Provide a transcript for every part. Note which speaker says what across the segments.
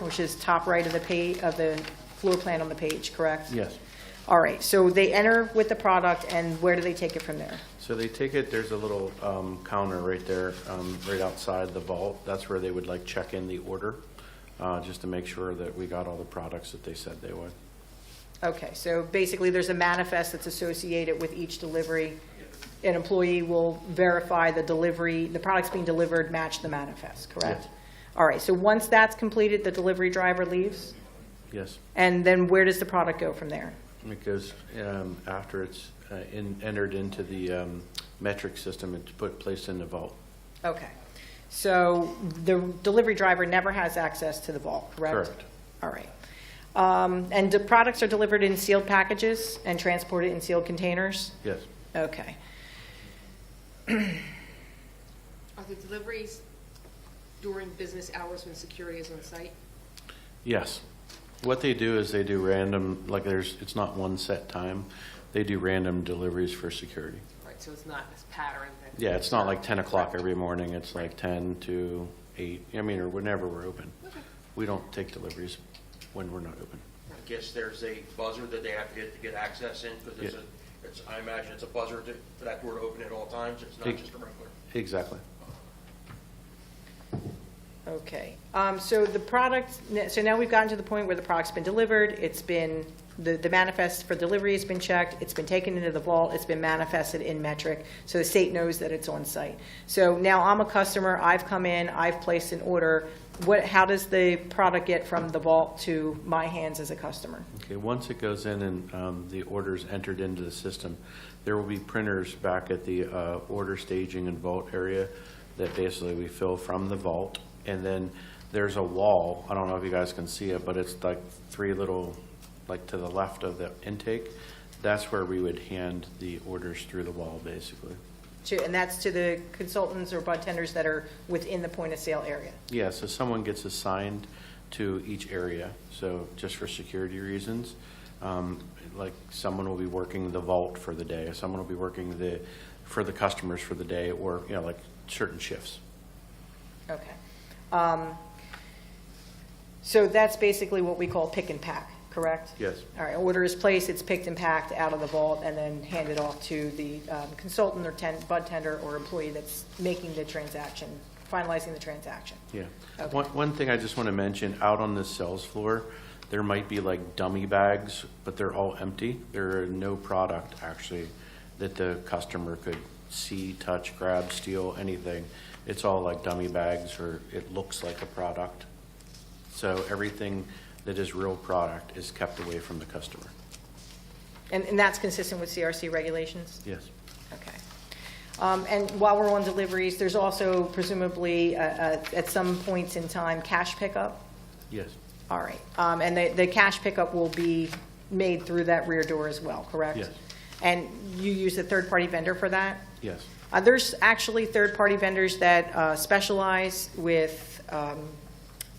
Speaker 1: which is top right of the page, of the floor plan on the page, correct?
Speaker 2: Yes.
Speaker 1: All right, so they enter with the product, and where do they take it from there?
Speaker 2: So they take it, there's a little um, counter right there, um, right outside the vault. That's where they would like check in the order, uh, just to make sure that we got all the products that they said they would.
Speaker 1: Okay, so basically, there's a manifest that's associated with each delivery. An employee will verify the delivery, the products being delivered match the manifest, correct?
Speaker 2: Yes.
Speaker 1: All right, so once that's completed, the delivery driver leaves,
Speaker 2: Yes,
Speaker 1: and then where does the product go from there?
Speaker 2: because um, after it's uh, in- entered into the um, metric system, it's put, placed in the vault.
Speaker 1: Okay, so the delivery driver never has access to the vault, correct?
Speaker 2: Correct.
Speaker 1: All right. Um, And the products are delivered in sealed packages and transported in sealed containers?
Speaker 2: Yes,
Speaker 1: Okay.
Speaker 3: Are the deliveries during business hours when security is on site?
Speaker 2: yes. What they do is they do random, like there's, it's not one set time. They do random deliveries for security.
Speaker 3: Right, so it's not this pattern that.
Speaker 2: Yeah, it's not like 10 o'clock every morning, it's like 10 to 8, I mean, or whenever we're open. We don't take deliveries when we're not open.
Speaker 4: I guess there's a buzzer that they have to get to get access in, because it's
Speaker 2: Yeah.
Speaker 4: a, it's, I imagine it's a buzzer to, for that door to open at all times, it's not
Speaker 2: Big-
Speaker 4: just a regular.
Speaker 2: Exactly.
Speaker 1: Okay, um, so the product, so now we've gotten to the point where the product's been delivered, it's been, the, the manifest for delivery has been checked, it's been taken into the vault, it's been manifested in metric, so the state knows that it's on site. So now I'm a customer, I've come in, I've placed an order, what, how does the product get from the vault to my hands as a customer?
Speaker 2: Okay, once it goes in and um, the order's entered into the system, there will be printers back at the uh, order staging and vault area that basically we fill from the vault. And then there's a wall, I don't know if you guys can see it, but it's like three little, like to the left of the intake. That's where we would hand the orders through the wall, basically.
Speaker 1: To, and that's to the consultants or bartenders that are within the point of sale area?
Speaker 2: Yeah, so someone gets assigned to each area, so just for security reasons. um, Like, someone will be working the vault for the day, or someone will be working the, for the customers for the day, or, you know, like, certain shifts.
Speaker 1: Okay. Um, So that's basically what we call pick and pack, correct?
Speaker 2: Yes.
Speaker 1: All right, order is placed, it's picked and packed out of the vault, and then handed off to the um, consultant or ten, bud tender or employee that's making the transaction, finalizing the transaction.
Speaker 2: Yeah.
Speaker 1: Okay.
Speaker 2: One, one thing I just want to mention, out on the sales floor, there might be like dummy bags, but they're all empty. There are no product, actually, that the customer could see, touch, grab, steal, anything. It's all like dummy bags, or it looks like a product. So everything that is real product is kept away from the customer.
Speaker 1: And, and that's consistent with CRC regulations?
Speaker 2: Yes.
Speaker 1: Okay. Um, And while we're on deliveries, there's also presumably, uh, uh, at some points in time, cash pickup?
Speaker 2: Yes.
Speaker 1: All right, um, and the, the cash pickup will be made through that rear door as well, correct?
Speaker 2: Yes.
Speaker 1: And you use a third-party vendor for that?
Speaker 2: Yes.
Speaker 1: Uh, there's actually third-party vendors that, uh, specialize with, um,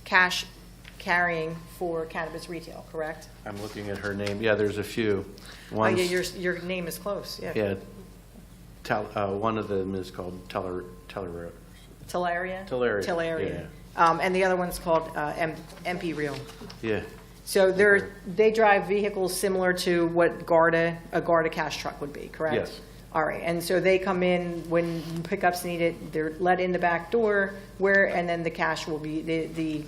Speaker 1: cash carrying for cannabis retail, correct?
Speaker 2: I'm looking at her name. Yeah, there's a few.
Speaker 1: Oh, yeah,
Speaker 2: One's-
Speaker 1: your, your name is close, yeah.
Speaker 2: Yeah. Tel, uh, one of them is called Teller, Teller,
Speaker 1: Telaria?
Speaker 2: Telaria,
Speaker 1: Telaria. Um, and the other one's called, uh, M- MP Real.
Speaker 2: yeah,
Speaker 1: So they're, they drive vehicles similar to what Garda, a Garda cash truck would be, correct?
Speaker 2: Yes.
Speaker 1: All right, and so they come in when pickups needed, they're let in the back door where, and then the cash will be, the, the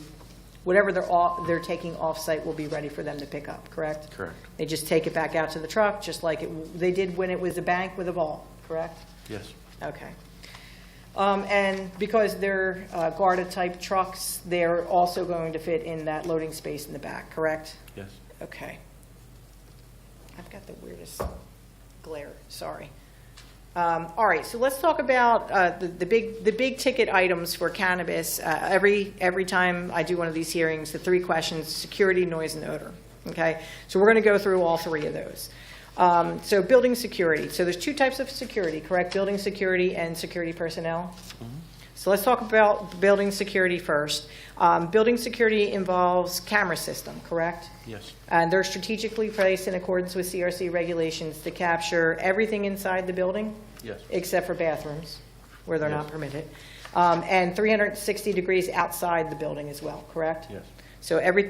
Speaker 1: whatever they're off, they're taking off-site will be ready for them to pick up, correct?
Speaker 2: Correct.
Speaker 1: They just take it back out to the truck, just like it, they did when it was a bank with a vault, correct?
Speaker 2: yes,
Speaker 1: Okay. Um, And because they're uh, Garda-type trucks, they're also going to fit in that loading space in the back, correct?
Speaker 2: yes.
Speaker 1: Okay. I've got the weirdest glare, sorry. Um, All right, so let's talk about uh, the the big, the big ticket items for cannabis. Uh, Every, every time I do one of these hearings, the three questions, security, noise, and odor, okay? So we're going to go through all three of those. Um, So building security, so there's two types of security, correct? Building security and security personnel? So let's talk about building security first. Um, Building security involves camera system, correct?
Speaker 2: Yes.
Speaker 1: And Uh, they're strategically placed in accordance with CRC regulations to capture everything inside the building?
Speaker 2: Yes.
Speaker 1: Except for bathrooms, where they're not
Speaker 2: Yes.
Speaker 1: permitted. Um, And 360 degrees outside the building as well, correct?
Speaker 2: Yes.
Speaker 1: So everything